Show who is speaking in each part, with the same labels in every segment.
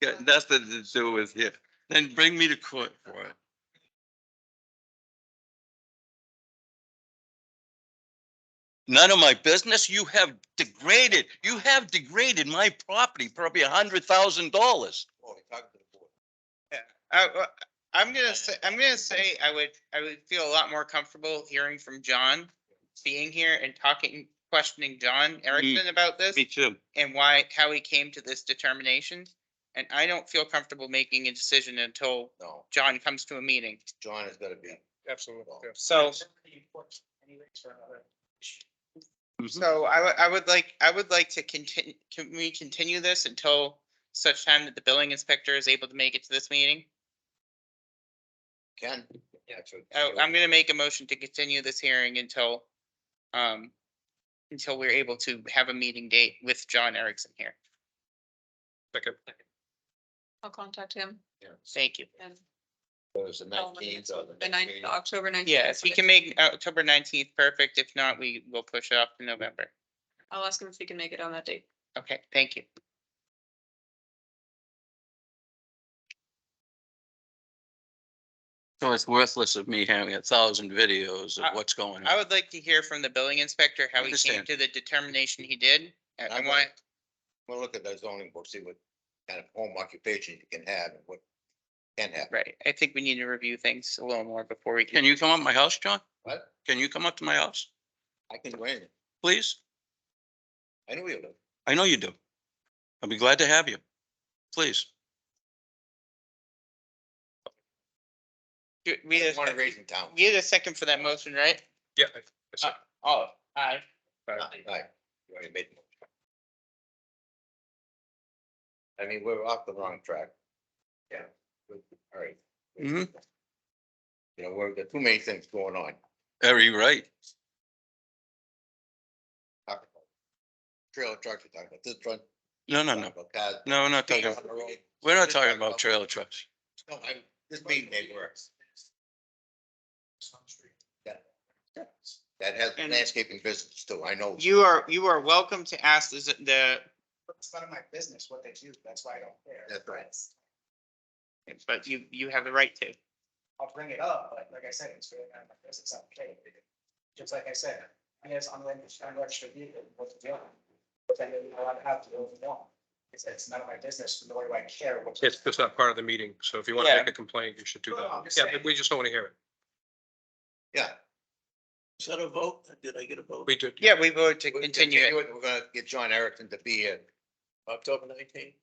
Speaker 1: Yeah, nothing to do with here. Then bring me to court for it. None of my business. You have degraded, you have degraded my property probably a hundred thousand dollars.
Speaker 2: I, I- I'm gonna say, I'm gonna say I would, I would feel a lot more comfortable hearing from John, being here and talking, questioning John Erickson about this
Speaker 1: Me too.
Speaker 2: and why, how he came to this determination. And I don't feel comfortable making a decision until
Speaker 3: No,
Speaker 2: John comes to a meeting.
Speaker 3: John has gotta be.
Speaker 4: Absolutely.
Speaker 2: So, so I, would- I would like, I would like to continue, can we continue this until such time that the billing inspector is able to make it to this meeting?
Speaker 3: Ken? Yeah, true.
Speaker 2: Oh, I'm gonna make a motion to continue this hearing until, um, until we're able to have a meeting date with John Erickson here.
Speaker 4: Second.
Speaker 5: I'll contact him
Speaker 2: Thank you.
Speaker 5: and
Speaker 3: There's the
Speaker 5: tell him
Speaker 3: nineteenth or the.
Speaker 5: the
Speaker 3: next
Speaker 5: ninth,
Speaker 3: meeting.
Speaker 5: October ninth.
Speaker 2: Yes, we can make October nineteenth perfect. If not, we will push it up to November.
Speaker 5: I'll ask him if he can make it on that date.
Speaker 2: Okay, thank you.
Speaker 1: So it's worthless of me having a thousand videos
Speaker 2: I-
Speaker 1: of what's going
Speaker 2: I
Speaker 1: on.
Speaker 2: would like to hear from the billing inspector how he came
Speaker 1: Understand.
Speaker 2: to the determination he did. I- I
Speaker 3: I'm
Speaker 2: want,
Speaker 3: gonna- We'll look at the zoning book, see what kind of home occupation you can have and what can happen.
Speaker 2: right, I think we need to review things a little more before we can.
Speaker 1: Can you come up my house, John?
Speaker 3: What?
Speaker 1: Can you come up to my house,
Speaker 3: I can do anything.
Speaker 1: please?
Speaker 3: I know you live.
Speaker 1: I know you do. I'll be glad to have you. Please.
Speaker 2: Do- We had,
Speaker 3: Want to
Speaker 2: a-
Speaker 3: raise in town.
Speaker 2: we had a second for that motion, right?
Speaker 4: Yeah. I- I see.
Speaker 2: Oh, aye.
Speaker 3: Right. You already made the motion. I mean, we're off the wrong track. Yeah. All right.
Speaker 1: Mhm.
Speaker 2: Mm-hmm.
Speaker 3: You know, we're, there are too many things going on.
Speaker 1: Very right.
Speaker 3: Talk about Trailer trucks, we're talking about this truck.
Speaker 1: No, no, no.
Speaker 3: talking about cars,
Speaker 1: No, we're not talking,
Speaker 3: speed on the road.
Speaker 1: we're not talking about trailer trucks.
Speaker 3: No, I, this meeting day works. Yeah. That has
Speaker 2: And-
Speaker 3: landscaping business too, I know.
Speaker 2: You are, you are welcome to ask the, z- the,
Speaker 4: It's none of my business what they do, that's why I don't care.
Speaker 3: That's right.
Speaker 2: but you, you have the right to.
Speaker 4: I'll bring it up, but like I said, it's really none of my business, I'm okay. with it. Just like I said, I guess I'm letting, I'm extra vehicle, what's the deal? But then you know, I have to go, no, it's, it's none of my business, nor do I care what.
Speaker 6: It's just not part of the meeting, so if you want to
Speaker 2: Yeah.
Speaker 6: make a complaint, you should do
Speaker 4: No, I'm
Speaker 6: that.
Speaker 4: just
Speaker 6: Yeah,
Speaker 4: saying.
Speaker 6: but we just don't want to hear it.
Speaker 3: Yeah.
Speaker 7: Is that a vote? Did I get a vote?
Speaker 6: We did.
Speaker 2: Yeah, we voted to
Speaker 3: We-
Speaker 2: continue it.
Speaker 3: We're gonna get John Erickson to be here,
Speaker 7: October nineteenth?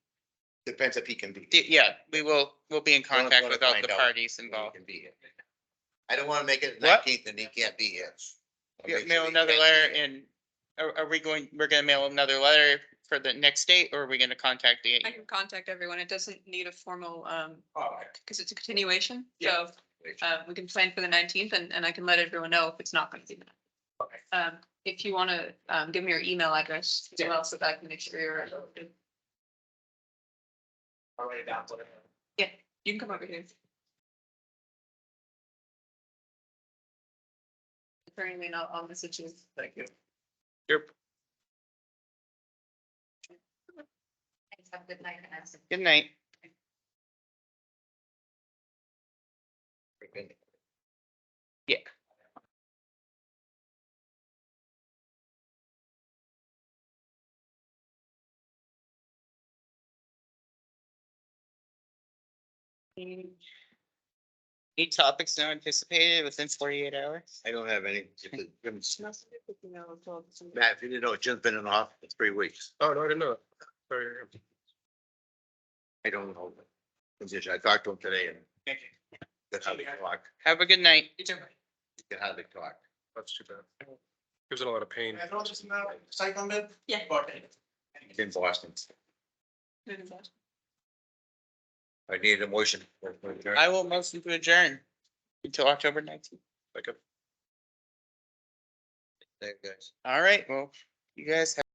Speaker 3: depends if he can be.
Speaker 2: D- Yeah, we will, we'll be in
Speaker 3: Wanna-
Speaker 2: contact
Speaker 3: wanna
Speaker 2: with all
Speaker 3: find
Speaker 2: the
Speaker 3: out
Speaker 2: parties
Speaker 3: if he
Speaker 2: involved.
Speaker 3: can be here. I don't wanna make it
Speaker 2: What?
Speaker 3: nineteenth and he can't be here. I'll
Speaker 2: Yeah,
Speaker 3: make sure
Speaker 2: Mail
Speaker 3: he
Speaker 2: another
Speaker 3: can't be
Speaker 2: letter
Speaker 3: here.
Speaker 2: and are, are we going, we're gonna mail another letter for the next date or are we gonna contact the?
Speaker 5: I can contact everyone. It doesn't need a formal, um,
Speaker 4: All right.
Speaker 5: because it's a continuation.
Speaker 4: Yeah.
Speaker 5: So, uh, we can plan for the nineteenth and, and I can let everyone know if it's not going to be. that.
Speaker 4: Okay.
Speaker 5: Um, if you want to, um, give me your email address as
Speaker 4: Yeah.
Speaker 5: well, so that I can make sure you're,
Speaker 4: I'll write it down. put it in.
Speaker 5: you can come over here. Apparently not on the situation.
Speaker 4: Thank you.
Speaker 5: Have a good night and ask.
Speaker 2: Good night. Eight topics now anticipated within forty-eight hours.
Speaker 3: I don't have any, if it-
Speaker 5: Matt,
Speaker 3: Matt, if you didn't know, Jim's been in the hospital for three weeks.
Speaker 6: Oh, no, I didn't know that. Sorry.
Speaker 3: I don't know. the Condition, I talked to him today and
Speaker 4: Thank you.
Speaker 3: that's how they talk,
Speaker 2: Have a good night.
Speaker 3: that's how they talk.
Speaker 6: That's too bad. Gives it a lot of pain.
Speaker 4: Can I throw just now, cycle bit?
Speaker 5: Yeah.
Speaker 4: Okay.
Speaker 3: It's In Boston, I needed a motion.
Speaker 2: I will motion to adjourn until October nineteenth.
Speaker 6: Like a
Speaker 3: Thank you, guys.
Speaker 2: All right, well, you guys have.